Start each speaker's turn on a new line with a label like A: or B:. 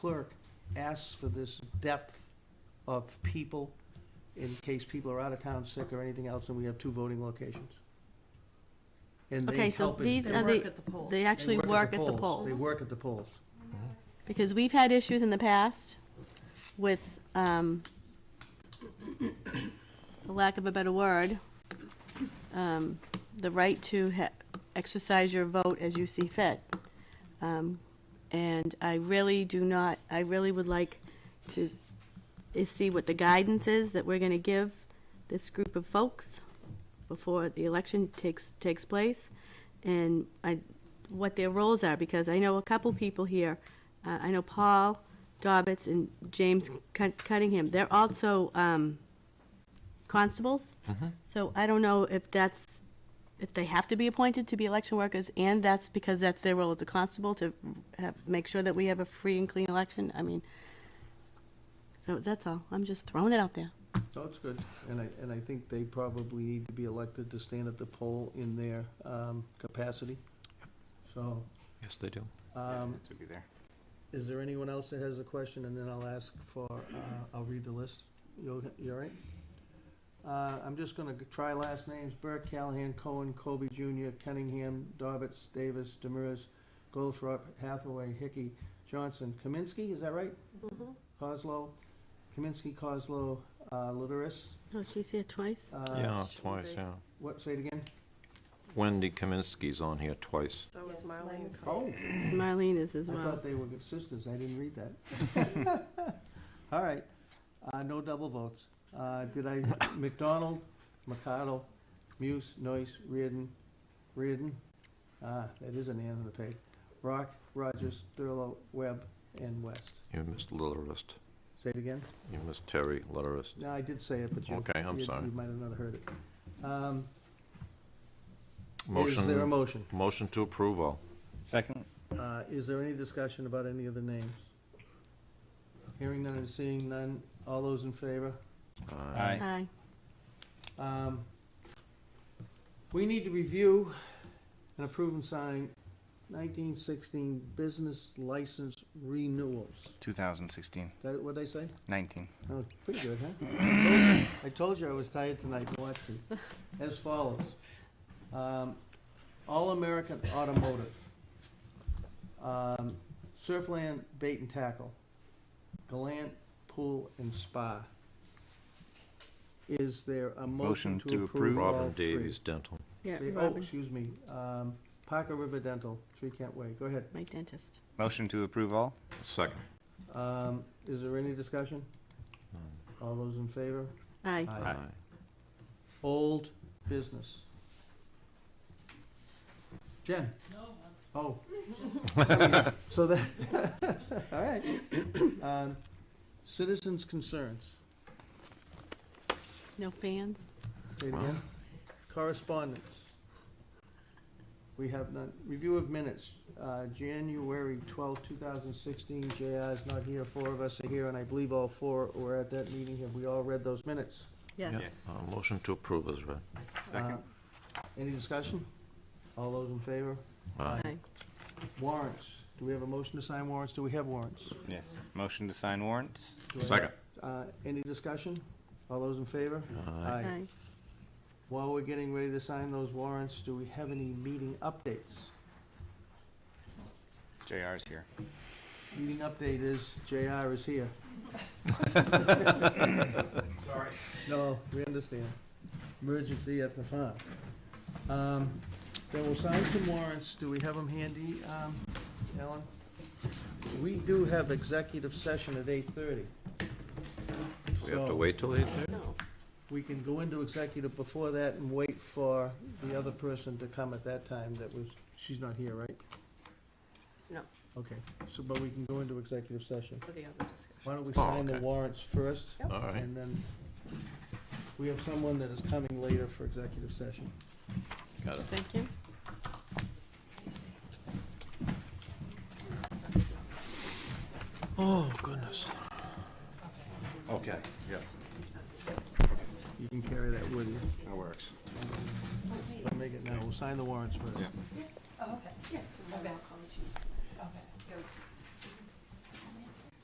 A: clerk asks for this depth of people in case people are out of town sick or anything else, and we have two voting locations. And they
B: Okay, so
A: help in-
B: these
A: they
B: are
A: work-
B: the-
C: Work at the polls.
B: They
A: they
B: actually work at the
A: They
B: polls.
A: work at the polls.
B: Because we've had issues in the past with, um, for lack of a better word, um, the right to ha- exercise your vote as you see fit. Um, And I really do not, I really would like to s- is see what the guidance is that we're gonna give this group of folks before the election takes, takes place, and I, what their roles are, because I know a couple people here, uh, I know Paul Dobbitts and James Cun- Cunningham, they're also, um, constables.
D: Mm-hmm.
B: So I don't know if that's, if they have to be appointed to be election workers, and that's because that's their role as a constable to have, make sure that we have a free and clean election, I mean, so that's all, I'm just throwing it out there.
A: So it's good, and I, and I think they probably need to be elected to stand at the poll in their um, capacity. So,
D: Yes, they do.
A: um,
E: To be there.
A: is there anyone else that has a question, and then I'll ask for, uh, I'll read the list. You, you all right? Uh, I'm just gonna g- try last names, Burke, Callahan, Cohen, Kobe Jr., Cunningham, Dobbitts, Davis, Demers, Goldthrop, Hathaway, Hickey, Johnson, Kaminsky, is that right?
E: Mm-hmm.
A: Coslow, Kaminsky, Coslow, uh, Litteris,
B: Oh, she's here twice?
A: uh,
D: Yeah,
C: should
D: twice,
C: they?
D: yeah.
A: What, say it again?
D: Wendy Kaminsky's on here twice.
C: So is
B: Yes, mine
C: Marlene.
B: is-
C: Cole.
E: Oh,
B: Marlene is as
A: I
B: well.
A: thought they were good sisters, I didn't read that. All right, uh, no double votes. Uh, did I, McDonald, Mercado, Muse, Noyce, Reardon, Reardon, ah, that is an N on the page. Rock, Rogers, Thurlow, Webb, and West.
D: You missed Litterist.
A: Say it again?
D: You missed Terry Litterist.
A: No, I did say it, but you.
D: Okay, I'm
A: you-
D: sorry.
A: You might have not heard it. Um, Is there a
D: Motion,
A: motion?
D: motion to approve all.
E: Second?
A: Uh, Is there any discussion about any of the names? Hearing none and seeing none, all those in favor?
D: Aye.
B: Hi.
A: Um, We need to review and approve and sign 1916 business license renewals.
E: 2016,
A: Is that what they say?
E: 19.
A: Oh, pretty good, huh? I told you I was tired tonight, watch me. As follows. Um, All-American Automotive. Um, Surfland Bait and Tackle. Galant Pool and Spa. Is there a motion to approve all
D: Robin
A: three?
D: Davies Dental.
B: Yeah,
A: They- Oh,
B: Robin,
A: excuse me, um, Parker River Dental, Three Kent Way, go ahead.
B: my dentist.
E: Motion to approve all?
D: Second.
A: Um, is there any discussion?
D: None.
A: All those in favor?
B: Aye.
A: Aye. Old business. Jen? No. Oh. So that, all right. Um, Citizens' concerns.
B: No fans?
A: Say it
D: Wow.
A: again. Correspondence. We have none. Review of minutes, uh, January twelfth, two thousand sixteen. JI is not here. Four of us are here, and I believe all four were at that meeting. Have we all read those minutes?
B: Yes.
D: Uh, Motion to approve is read.
E: Second.
A: Uh, Any discussion? All those in favor?
D: Aye.
B: Aye.
A: Warrants. Do we have a motion to sign warrants? Do we have warrants?
E: Yes. Motion to sign warrants?
A: Do I-
D: Second.
A: Uh, Any discussion? All those in favor?
D: Aye.
B: Aye.
A: While we're getting ready to sign those warrants, do we have any meeting updates?
E: JR's here.
A: Meeting update is JR is here. Sorry. No, we understand. Emergency at the farm. Um, Then we'll sign some warrants. Do we have them handy, um, Ellen? We do have executive session at eight-thirty.
D: We have to wait till eight thirty?
B: No.
A: we can go into executive before that and wait for the
C: Uh-huh.
A: other person to come at that time that was, she's not here, right?
C: No.
A: Okay, so, but we can go into executive session.
C: For the other discussion.
A: Why don't we
D: Oh,
A: sign the
D: okay.
A: warrants first?
C: Yep.
D: All right.
A: And then, we have someone that is coming later for executive session.
D: Got it.
B: Thank you.
D: Oh, goodness.
E: Okay, yeah,
A: You can carry that with you.
E: that works.
A: Don't make it now, we'll sign the warrants first.
E: Yeah.
C: Okay.